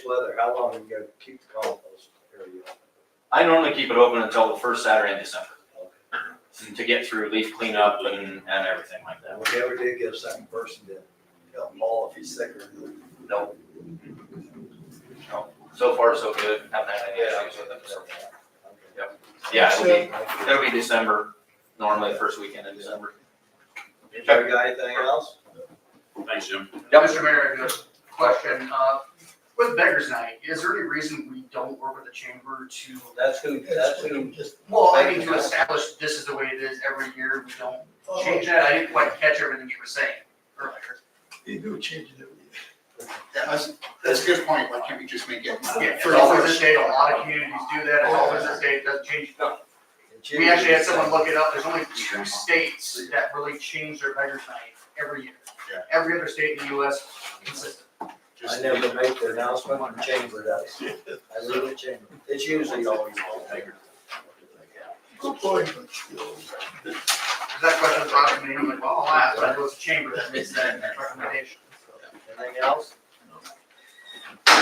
weather, how long are you gonna keep the compost area open? I normally keep it open until the first Saturday in December to get through leaf cleanup and, and everything like that. And we never did get a second person to help Paul if he's sick or. No. No, so far so good, haven't had any issues with it. so. Yeah, it'll be, it'll be December, normally the first weekend in December. You got anything else? Thanks, Jim. Yep. Mr. Mayor, I have a question. Uh, With Beggars Night, is there any reason we don't work with the chamber to, That's who, that's who. well, I mean, to establish this is the way it is every year, we don't change that? I didn't quite catch everything you were saying earlier. You do change it every year. That's, that's a good point, why can't we just make it? Yeah, it's for always ours? this date, a lot of communities do that, it's always this date, it doesn't change. We actually had someone look it up, there's only two states that really change their Beggars Night every year. Yeah. Every other state in the US consistent. I never make the announcement, the chamber does. I leave the chamber. It's usually always all bigger. Good point, but still. Because that question was brought to me, and I'm like, well, I'll ask, but it was the chamber that makes that recommendation. Anything else?